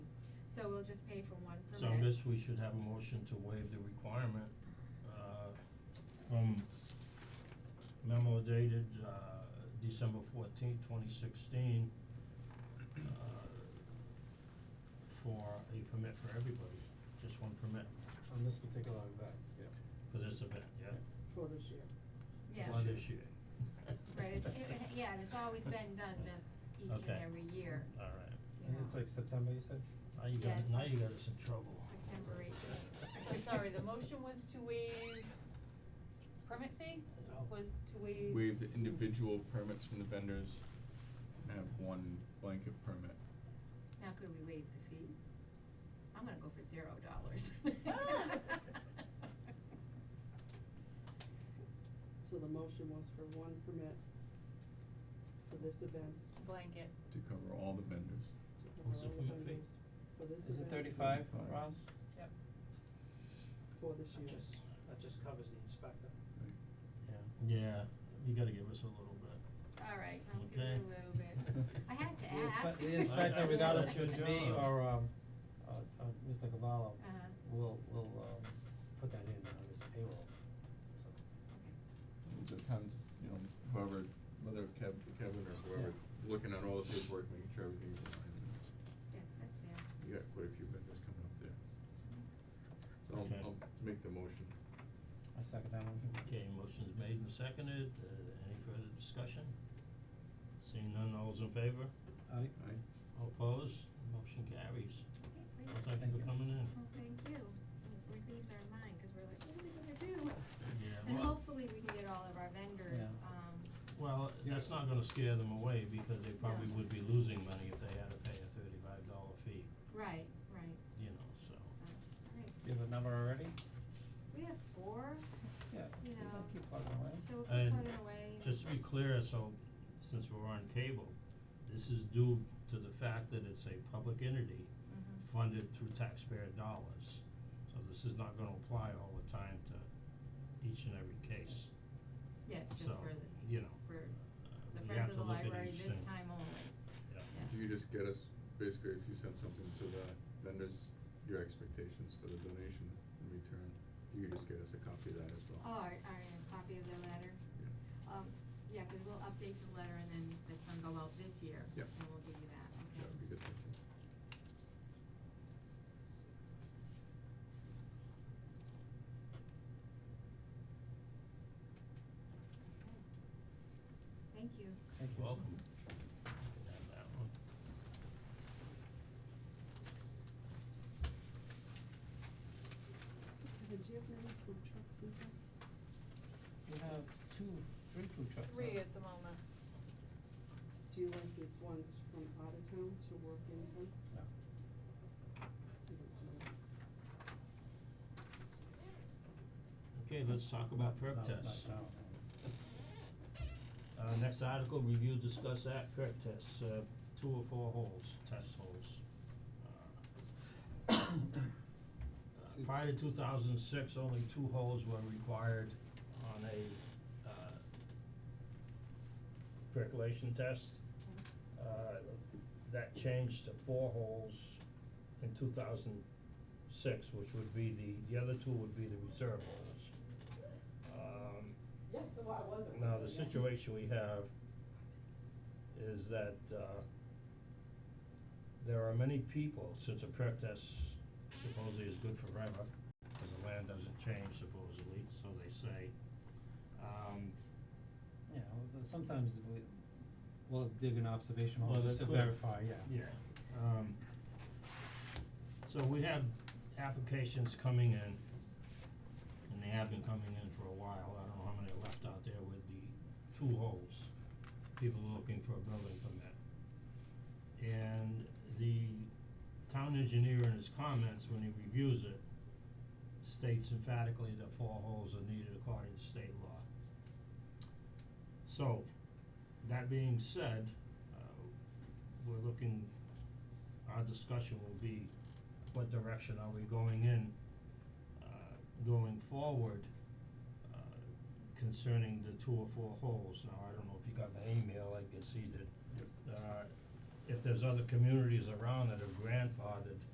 just pay for one permit. So I guess we should have a motion to waive the requirement, uh, from memo dated, uh, December fourteenth, twenty sixteen, uh, for a permit for everybody, just one permit on this particular event, yeah. for this event, yeah? for this year. Yeah. For this year. Right, it's, it, it- yeah, and it's always been done just each and Okay. every year, Alright, you I think it's know. like September, you said? now you got, Yes. now you got us in trouble. September 18th. So sorry, the motion was to waive permit fee, was to waive. waive the individual permits from the vendors and have one blanket permit. Now could we waive the fee? I'm gonna go for zero dollars. Ah. So the motion was for one permit for this event, Blanket. To cover all the vendors. to What's cover the all the permit fee? vendors for this Is it event, thirty-five, Thirty-five. Roz? Yep. for this year. That just, that just covers the inspector. Right. Yeah. Yeah, you gotta give us a little bit. Alright, I'll give it Okay. a little bit. I had to The ask. inspe- I- the I inspector, think regardless that's if it's good me job. or um uh uh Mr. Cavallo, Uh-huh. will will um put that in on his payroll, so. And So tons, you know, whoever, whether Kev, Kevin or whoever, looking at all the paperwork, making sure everything's in line. and it's- Okay, yeah, that's fair. We got quite a few vendors coming up there. So Okay. I'll, I'll make the motion. I second that motion. Okay, motion's made and seconded, uh, any further discussion? Seeing none, all's in favor? Aye. Aye. All opposed, motion carries. Okay, great. Well, thank you for Thank you. coming in. Well, thank you. We we lose our mind, cause we're like, what are we gonna do? Yeah, And well- hopefully we can get all of our vendors, Yeah. um, Well, that's not gonna scare them away because they probably No. would be losing money if they had to pay a thirty-five dollar fee, right, right, you know, so. so, alright. You have a number already? We have four, Yeah, You know, keep plugging away. so we'll keep And plugging away. just to be clear, so since we're on cable, this is due to the fact that it's a public entity Mhm. funded through taxpayer dollars. So this is not gonna apply all the time to each and every case. Yeah, it's just So, for the, you know, for uh, the you Friends have of to the look at Library each this thing. time only, Yeah. yeah. If you could just get us, basically, if you sent something to the vendors, your expectations for the donation in return, you could just get us a copy of that as well. Oh, our, our uh, copy of the letter, Yeah. um, yeah, we we'll update the letter and then it's gonna go out this year, Yep. and we'll give you that, okay. That would be good, thank you. Okay. Thank you. Thank you. Welcome. You can have that one. Kevin, do you have any food trucks in town? We have two, three food trucks. Three huh? at the moment. Do you license ones from out of town to work in town? No. You don't do that. Okay, let's talk about No, perp not tests. now, no. Uh, next article, review, discuss act, perk tests, uh, two or four holes, test holes. Uh, uh, Prior to two thousand six, only two holes were required on a, uh, percolation test. Uh, that changed to four holes in two thousand six, which would be the, the other two would be the reserve holes. Um, Yes, so I was. now, the situation we have is that, uh, there are many people, since a perk test supposedly is good forever, because the land doesn't change supposedly, so they say. Um, Yeah, well, th- sometimes we, we'll dig an observation hole Well, just that to could- verify, yeah. yeah, um, so we have applications coming in, and they have been coming in for a while, I don't know how many are left out there with the two holes, people looking for a building permit. And the town engineer in his comments, when he reviews it, states emphatically that four holes are needed according to state law. So, that being said, uh, we're looking, our discussion will be what direction are we going in, uh, going forward, uh, concerning the two or four holes. Now, I don't know if you got my email, I guess he did. Uh, if there's other communities around that have grandfathered